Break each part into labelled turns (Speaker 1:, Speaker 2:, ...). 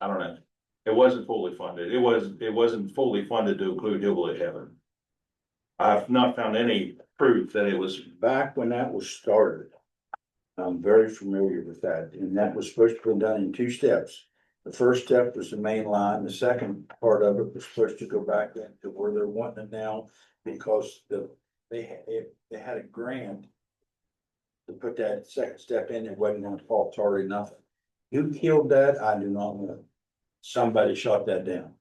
Speaker 1: I don't know. It wasn't fully funded. It was, it wasn't fully funded to include Hillbilly Heaven. I've not found any proof that it was,
Speaker 2: back when that was started. I'm very familiar with that, and that was supposed to be done in two steps. The first step was the main line, the second part of it was supposed to go back into where they're wanting it now, because the, they, had- it- they had a grant. To put that second step in, it wasn't gonna fall tar or nothing. Who killed that? I do not know. Somebody shot that down.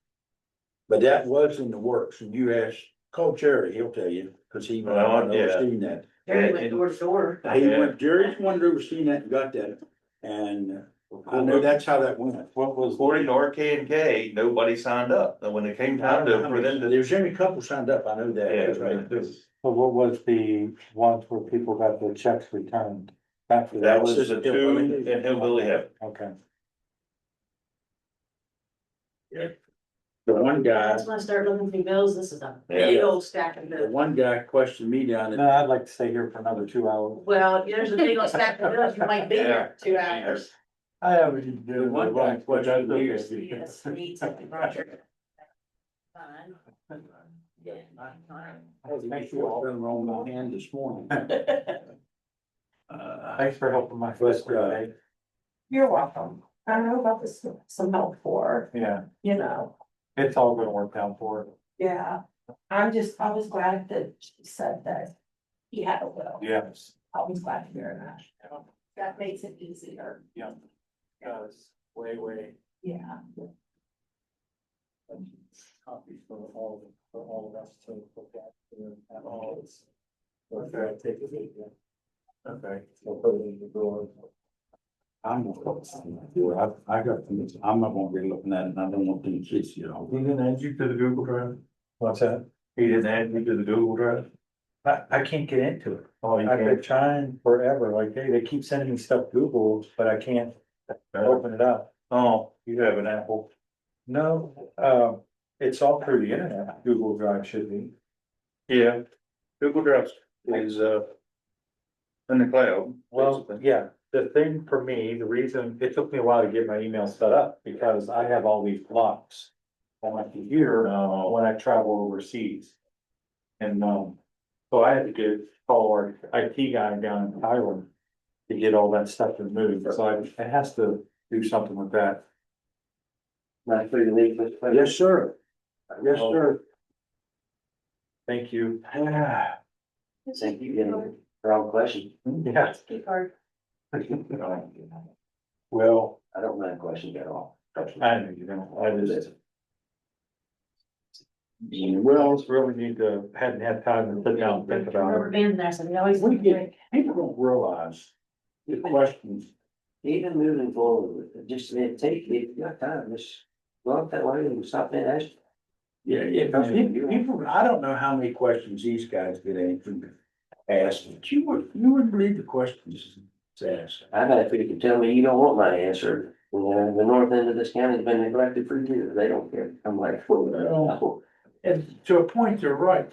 Speaker 2: But that was in the works, and you ask, call Jerry, he'll tell you, cause he was
Speaker 1: Well, yeah.
Speaker 2: overseeing that.
Speaker 3: Terry went door to door.
Speaker 2: He went, Jerry's one who was seeing that and got that, and I know that's how that went.
Speaker 1: what was, according to RK and K, nobody signed up. And when it came time to, for them to.
Speaker 2: There's only a couple signed up, I know that.
Speaker 4: So what was the ones where people got their checks returned? Back to
Speaker 1: That was the two in Hillbilly Heaven.
Speaker 4: Okay.
Speaker 2: The one guy,
Speaker 3: That's when I started looking through bills, this is a
Speaker 1: Yeah.
Speaker 3: big old stack of
Speaker 2: the
Speaker 3: bills.
Speaker 2: one guy questioned me down
Speaker 4: No,
Speaker 2: at,
Speaker 4: I'd like to stay here for another two hours.
Speaker 3: Well, there's a big old stack of bills, you might be here two
Speaker 1: Yeah.
Speaker 3: hours.
Speaker 4: I haven't.
Speaker 2: The one guy questioned me.
Speaker 3: Yes, me too, Roger. Fine. Yeah, fine.
Speaker 2: make sure what's been wrong with my hand this morning. Uh,
Speaker 4: Thanks for helping my
Speaker 2: But,
Speaker 4: sister
Speaker 2: uh,
Speaker 4: today.
Speaker 5: You're welcome. I don't know about this, some help for,
Speaker 4: Yeah,
Speaker 5: you know,
Speaker 4: it's all gonna work out for her.
Speaker 5: yeah. I'm just, I was glad that she said that he had a will.
Speaker 4: Yes.
Speaker 5: I was glad to hear that. That makes it easier.
Speaker 4: Yeah. Does, way, way.
Speaker 5: Yeah.
Speaker 4: Copies for all, for all of us to look at, uh, at all. It's- Okay, take a video. Okay. We'll put it in the drawer.
Speaker 2: I'm not gonna sign that. Well, I, I got, things I'm not gonna be looking at it, and I don't want them kids, you know.
Speaker 1: He didn't add you to the Google Drive?
Speaker 4: What's that?
Speaker 1: He didn't add you to the Google Drive?
Speaker 4: I, I can't get into it.
Speaker 1: Oh, you
Speaker 4: I've
Speaker 1: can't.
Speaker 4: been trying forever, like, hey, they keep sending me stuff Google, but I can't open it up.
Speaker 1: Oh, you have an Apple.
Speaker 4: No, uh, it's all through the internet, Google Drive should be.
Speaker 1: Yeah. Google Drive is, uh, in the cloud.
Speaker 4: Well, yeah, the thing for me, the reason, it took me a while to get my email set up, because I have all these blocks. On my computer,
Speaker 1: Oh.
Speaker 4: uh, when I travel overseas. And, um, so I had to get, call our IT guy down in Taiwan. To get all that stuff removed, so I- it has to do something with that.
Speaker 2: Yes, sir. Yes, sir.
Speaker 4: Thank you.
Speaker 6: Thank you again for all the questions.
Speaker 4: Yes.
Speaker 3: Key card.
Speaker 4: Well,
Speaker 6: I don't mind questions at all.
Speaker 4: I know you don't, I just.
Speaker 6: Well,
Speaker 4: Well, really need to, hadn't had time to sit down and think about it.
Speaker 3: Rubber band, that's, we always.
Speaker 2: We get- People don't realize the questions
Speaker 6: even moving forward, with it, just it take, if you got time, just go up that way and stop and ask.
Speaker 2: Yeah, yeah, 'cause people, people- I don't know how many questions these guys get answered, asked, but you would, you would believe the questions it's asked.
Speaker 6: I've had people can tell me you don't want my answer. You know, the north end of this county's been neglected for years. They don't care. I'm like, whoa.
Speaker 2: And to a point, they're right.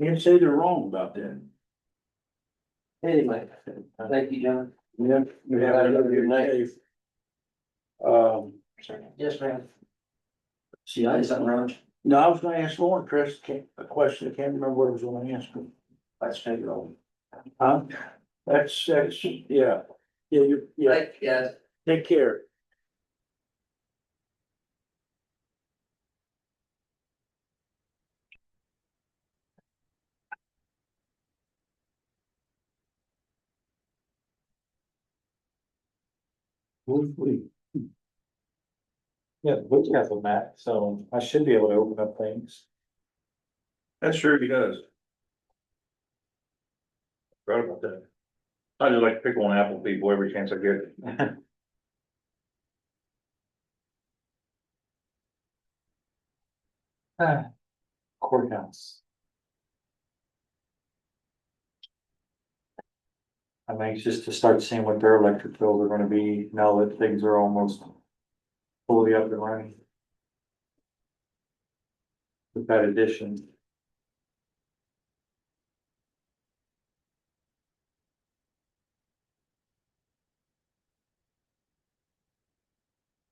Speaker 2: Can't say they're wrong about that.
Speaker 6: Anyway, thank you, John.
Speaker 2: Yeah. You have another good night. Um,
Speaker 6: Yes, ma'am. She likes something wrong.
Speaker 2: no, I was gonna ask Lauren, Chris, can't- a question, I can't remember what I was gonna ask him.
Speaker 6: Let's take it over.
Speaker 2: Huh? That's, that's, yeah, yeah, you, yeah,
Speaker 6: you, guys.
Speaker 2: take care.
Speaker 4: Yeah, we have a map, so I should be able to open up things.
Speaker 1: That sure he does. Right about that. I just like to pick on Apple people every chance I get.
Speaker 4: Ah, Courthouse. I'm anxious to start seeing what their electric bills are gonna be now that things are almost fully up and running. With that addition.